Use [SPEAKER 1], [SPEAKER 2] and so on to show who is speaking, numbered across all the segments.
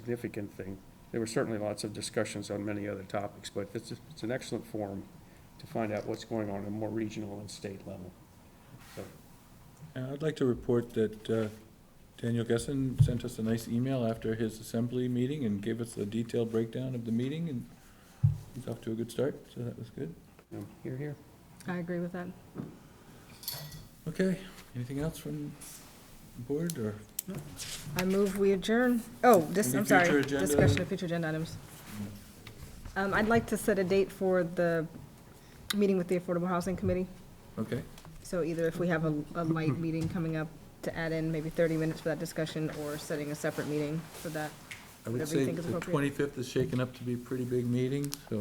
[SPEAKER 1] significant thing. There were certainly lots of discussions on many other topics, but it's, it's an excellent forum to find out what's going on at a more regional and state level.
[SPEAKER 2] And Uh, I'd like to report that uh, Daniel Gessen sent us a nice email after his assembly meeting and gave us a detailed breakdown of the meeting, and he's off to a good start, so that was good.
[SPEAKER 1] Um, Here, here.
[SPEAKER 3] I agree with that.
[SPEAKER 2] Okay, anything else from the board, or
[SPEAKER 3] I move we adjourn. Oh, this,
[SPEAKER 2] Any
[SPEAKER 3] I'm
[SPEAKER 2] future
[SPEAKER 3] sorry,
[SPEAKER 2] agenda?
[SPEAKER 3] discussion of future agenda items. Um, I'd like to set a date for the meeting with the Affordable Housing Committee.
[SPEAKER 2] okay?
[SPEAKER 3] So either if we have a, a light meeting coming up to add in maybe thirty minutes for that discussion or setting a separate meeting for that.
[SPEAKER 2] I would
[SPEAKER 3] Whatever
[SPEAKER 2] say
[SPEAKER 3] you think is
[SPEAKER 2] the
[SPEAKER 3] appropriate.
[SPEAKER 2] twenty-fifth is shaken up to be a pretty big meeting, so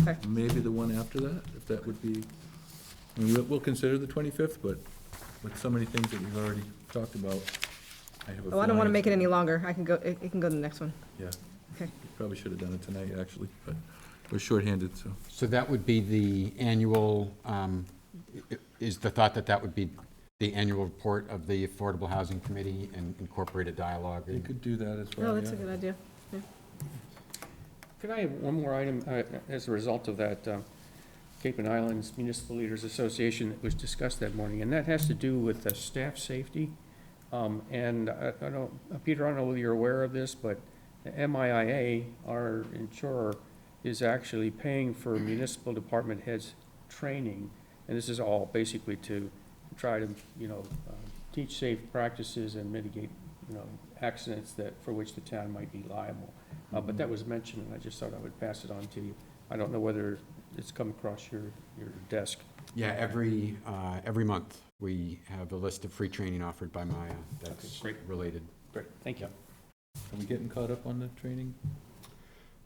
[SPEAKER 3] Okay.
[SPEAKER 2] maybe the one after that, if that would be, I mean, we'll, we'll consider the twenty-fifth, but with so many things that we've already talked about, I have a
[SPEAKER 3] Oh, I don't want to
[SPEAKER 2] feeling
[SPEAKER 3] make it
[SPEAKER 2] it's-
[SPEAKER 3] any longer. I can go, it, it can go to the next one.
[SPEAKER 2] Yeah.
[SPEAKER 3] Okay.
[SPEAKER 2] Probably should have done it tonight, actually, but we're shorthanded, so.
[SPEAKER 4] So that would be the annual, um, i- is the thought that that would be the annual report of the Affordable Housing Committee and incorporate a dialogue?
[SPEAKER 2] You could do that as well,
[SPEAKER 3] Oh, that's a
[SPEAKER 2] yeah.
[SPEAKER 3] good idea.
[SPEAKER 1] Could I have one more item, uh, as a result of that, um, Cape and Islands Municipal Leaders Association that was discussed that morning, and that has to do with uh, staff safety. Um, And I I don't, uh, Peter, I don't know whether you're aware of this, but the MIA, our insurer, is actually paying for municipal department heads' training. And this is all basically to try to, you know, uh, teach safe practices and mitigate, you know, accidents that, for which the town might be liable. Uh, but that was mentioned, and I just thought I would pass it on to you. I don't know whether it's come across your, your desk.
[SPEAKER 4] Yeah, every, uh, every month, we have a list of free training offered by Maya that's
[SPEAKER 1] great.
[SPEAKER 4] related.
[SPEAKER 1] Great. Thank you.
[SPEAKER 2] Are we getting caught up on the training?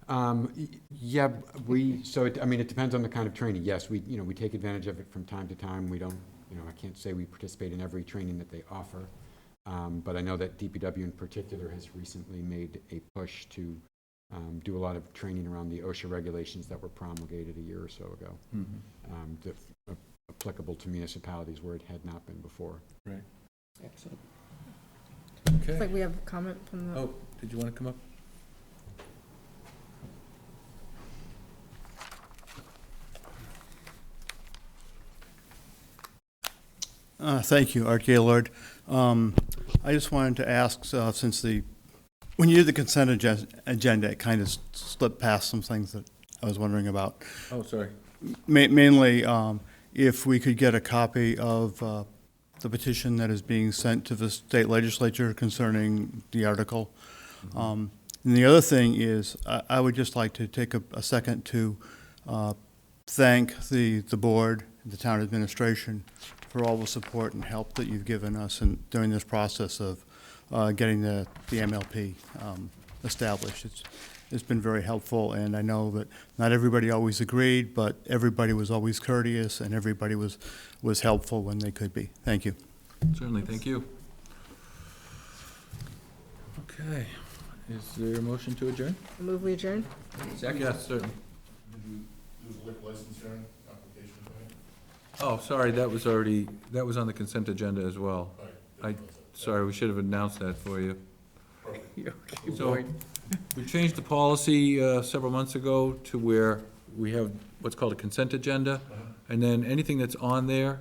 [SPEAKER 4] Um, y- Yeah, we, so, it- I mean, it depends on the kind of training. Yes, we, you know, we take advantage of it from time to time. We don't, you know, I can't say we participate in every training that they offer. Um, But I know that DPW in particular has recently made a push to um, do a lot of training around the OSHA regulations that were promulgated a year or so ago,
[SPEAKER 2] Mm-hmm.
[SPEAKER 4] um, that are applicable to municipalities where it had not been before.
[SPEAKER 1] Excellent.
[SPEAKER 3] It's like
[SPEAKER 2] Okay.
[SPEAKER 3] we have a comment from the,
[SPEAKER 2] Oh, did you want to come up?
[SPEAKER 5] Uh, Thank you, Art Gaylord. Um, I just wanted to ask, uh, since the, when you did the consent agen- agenda, it kind of slipped past some things that I was wondering about.
[SPEAKER 2] Oh, sorry.
[SPEAKER 5] Ma- Mainly, um, if we could get a copy of uh, the petition that is being sent to the state legislature concerning the article. Um, And the other thing is, I I would just like to take a a second to uh, thank the the board, the town administration, for all the support and help that you've given us in- during this process of uh, getting the the MLP um, established. It's it's been very helpful, and I know that not everybody always agreed, but everybody was always courteous, and everybody was, was helpful when they could be. Thank you.
[SPEAKER 2] Certainly, thank you. Okay, is there a motion to adjourn?
[SPEAKER 3] move we adjourn?
[SPEAKER 2] Second. Yes, certainly.
[SPEAKER 6] Did you do the liquor license hearing application tonight?
[SPEAKER 2] Oh, sorry, that was already, that was on the consent agenda as well. I, sorry, we should have announced that for you.
[SPEAKER 1] Okay,
[SPEAKER 2] So-
[SPEAKER 1] Boyd.
[SPEAKER 2] We changed the policy uh, several months ago to where we have what's called a consent agenda,
[SPEAKER 6] Uh-huh.
[SPEAKER 2] and then anything that's on there,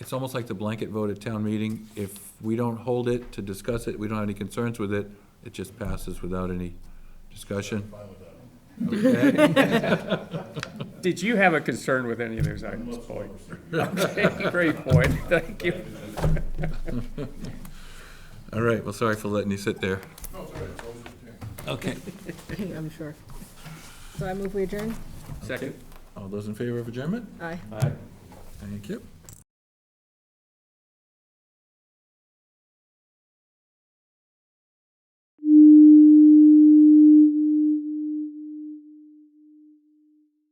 [SPEAKER 2] it's almost like the blanket vote at town meeting. If we don't hold it to discuss it, we don't have any concerns with it, it just passes without any discussion. Okay.
[SPEAKER 1] Did you have a concern with any of those items, Boyd? Okay, great, Boyd. Thank you.
[SPEAKER 2] All right, well, sorry for letting you sit there.
[SPEAKER 6] No, it's all right, it's always a change.
[SPEAKER 2] Okay.
[SPEAKER 3] I'm sure. So I move we adjourn?
[SPEAKER 1] Second.
[SPEAKER 2] All those in favor of adjournment?
[SPEAKER 3] Aye.
[SPEAKER 2] Thank you.